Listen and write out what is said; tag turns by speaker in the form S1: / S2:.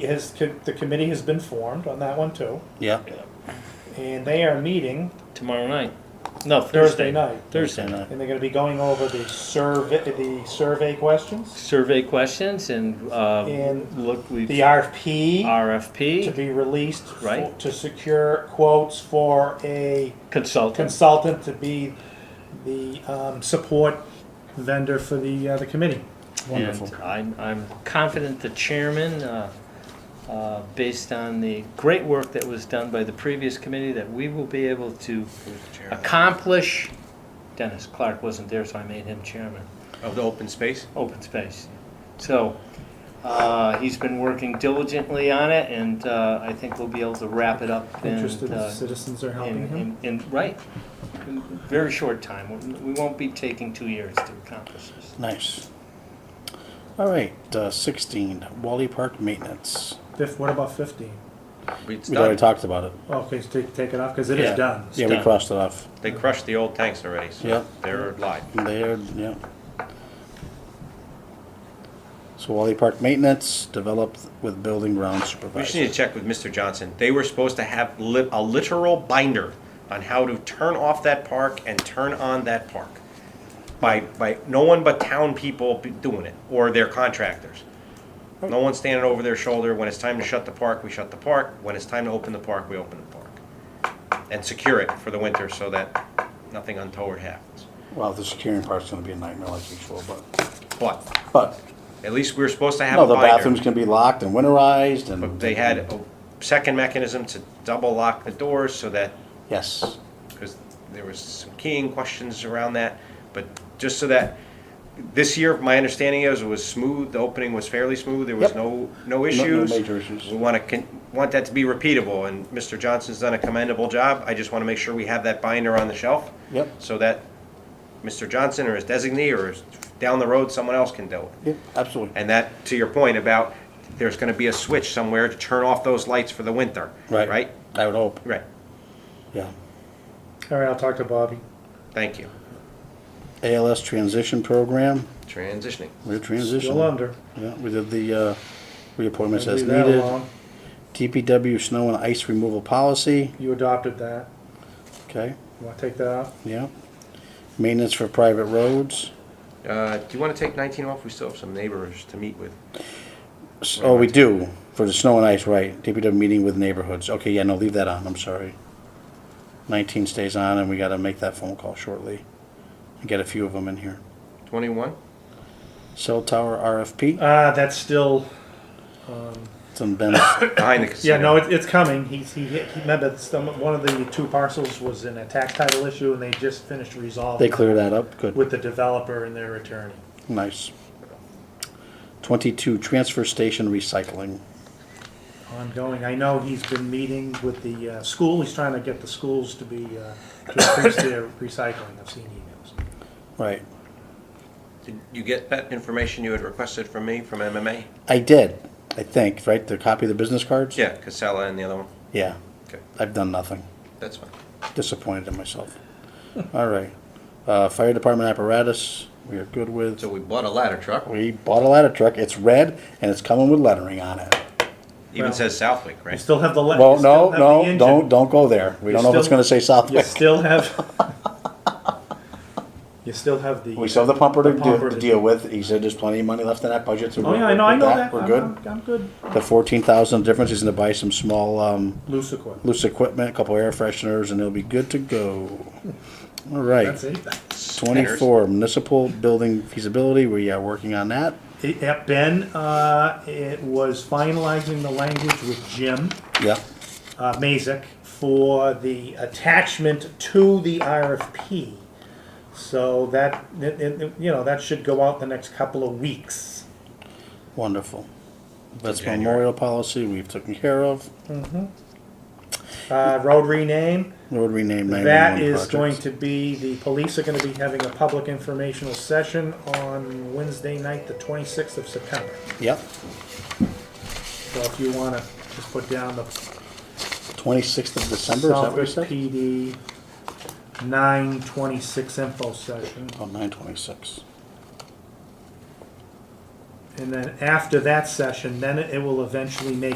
S1: Has, the committee has been formed on that one too,
S2: Yeah,
S1: and they are meeting
S3: Tomorrow night. No,
S1: Thursday
S3: Thursday.
S1: night.
S3: Thursday night.
S2: night.
S1: And they're gonna be going over the survey, the survey questions,
S3: Survey questions and, uh,
S1: And
S3: look, we,
S1: the RFP to
S3: RFP,
S1: be released for-
S3: Right.
S1: to secure quotes for a
S3: consultants.
S1: consultant to be the um, support vendor for the, uh, the committee.
S2: Wonderful.
S4: uh,
S3: And I'm, I'm confident the chairman, uh, uh, based on the great work that was done by the previous committee, that we will be able to accomplish. Dennis Clark wasn't there, so I made him chairman.
S4: Of the open space?
S3: open space. So, uh, he's been working diligently on it, and, uh, I think we'll be able to wrap it up in,
S1: Interested
S3: uh,
S1: citizens are helping
S3: in,
S1: him.
S3: in, in, right, in very short time. We won't be taking two years to accomplish this.
S2: nice. All right, uh, 16, Wally Park Maintenance.
S1: Fif- What about fifteen?
S4: It's
S2: We already
S4: done.
S2: talked about it.
S1: Okay, so take, take it off, cause it
S3: Yeah.
S1: is done.
S2: yeah, we
S3: done.
S2: crossed it off.
S4: They crushed the old tanks already, so
S2: Yeah.
S4: they're live.
S2: There, yeah. So Wally Park Maintenance, developed with building ground
S4: We just need
S2: supervisor.
S4: to check with Mr. Johnson. They were supposed to have li- a literal binder on how to turn off that park and turn on that park. By, by, no one but town people be doing it, or their contractors.
S2: Oh.
S4: No one standing over their shoulder. When it's time to shut the park, we shut the park. When it's time to open the park, we open the park. And secure it for the winter so that nothing untoward happens.
S2: Well, the securing part's gonna be a nightmare like usual, but,
S4: But
S2: but,
S4: at least we were supposed to have
S2: no,
S4: a
S2: the
S4: binder.
S2: bathrooms can be locked and winterized and.
S4: But they had a second mechanism to double lock the doors so that,
S2: Yes,
S4: because there was some keying questions around that, but just so that, this year, my understanding is it was smooth, the opening was fairly smooth, there was
S2: Yep.
S4: no, no
S2: no
S4: issues.
S2: major issues.
S4: We want to, want that to be repeatable, and Mr. Johnson's done a commendable job, I just want to make sure we have that binder on the shelf.
S2: Yep.
S4: So that Mr. Johnson or his designee or his- down the road, someone else can do it.
S2: yeah, absolutely.
S4: And that, to your point about, there's gonna be a switch somewhere to turn off those lights for the winter.
S2: Right.
S4: Right?
S2: I would hope,
S4: Right,
S2: yeah.
S1: Alright, I'll talk to Bobby.
S4: thank you.
S2: ALS transition program,
S4: Transitioning.
S2: we're transitioning.
S1: Still under.
S2: Yeah, we did the, uh, reappointments as
S1: Leave that
S2: needed.
S1: alone.
S2: DPW snow and ice removal policy,
S1: You adopted that.
S2: okay,
S1: You wanna take that out?
S2: yeah. Maintenance for private roads,
S4: Uh, do you wanna take nineteen off? We still have some neighbors to meet with.
S2: S- oh, we do, for the snow and ice, right, DPW meeting with neighborhoods, okay, yeah, no, leave that on, I'm sorry. Nineteen stays on, and we gotta make that phone call shortly, and get a few of them in here.
S4: Twenty-one?
S2: Cell tower RFP,
S1: Uh, that's still, um,
S2: it's on Ben's,
S4: Behind the casino.
S1: yeah, no, it, it's coming. He's, he, he, remember, some, one of the two parcels was in a tax title issue and they just finished
S2: they
S1: resolving
S2: clear that up, good,
S1: with the developer and their attorney.
S2: nice. Twenty-two, transfer station recycling,
S1: Ongoing. I know he's been meeting with the, uh, school. He's trying to get the schools to be, uh, to increase their recycling. I've seen emails.
S2: right.
S4: Did you get that information you had requested from me, from MMA?
S2: I did, I think, right, the copy of the business cards?
S4: Yeah, Casella and the other one.
S2: Yeah,
S4: Okay,
S2: I've done nothing.
S4: that's fine.
S2: Disappointed in myself. All right. Uh, fire department apparatus, we are good with.
S4: So we bought a ladder truck.
S2: We bought a ladder truck. It's red and it's coming with lettering on it.
S4: Even
S1: Well-
S4: says Southwick,
S1: You
S4: right?
S1: still have the. le-
S2: Well,
S1: you still
S2: no,
S1: have the
S2: no,
S1: engine.
S2: don't, don't go there. We
S1: You
S2: don't know if it's
S1: still-
S2: gonna say
S1: You
S2: Southwick.
S1: still have. You still have the.
S2: We still have the pumper to
S1: The
S2: deal,
S1: pumper
S2: to
S1: to-
S2: deal with. He said there's plenty of money left in that budget, so.
S1: Oh,
S2: we're-
S1: yeah, I know, I
S2: with
S1: know that. Uh-huh.
S2: We're
S1: I'm-
S2: good.
S1: I'm- I'm good.
S2: The fourteen thousand difference is gonna buy some small, um,
S1: Loose equipment.
S2: loose equipment, a couple air fresheners, and it'll be good to go. All right.
S1: That's it.
S2: Twenty-four, municipal building feasibility, we are working on that.
S1: It- uh, Ben, uh, it was finalizing the language with Jim,
S2: Yeah.
S1: uh, Mazik for the attachment to the RFP. So that, it- it- you know, that should go out the next couple of weeks.
S2: Wonderful. That's
S4: January.
S2: memorial policy, we've taken care of.
S1: Uh, road rename,
S2: Road rename
S1: that
S2: 911
S1: is going
S2: projects.
S1: to be, the police are gonna be having a public informational session on Wednesday night, the twenty-sixth of September.
S2: Yep,
S1: So if you wanna just put down the
S2: twenty-sixth of December, is that
S1: Southwick
S2: what you said?
S1: PD, nine twenty-six info session,
S2: Oh, nine twenty-six.
S1: And then after that session, then it it will eventually make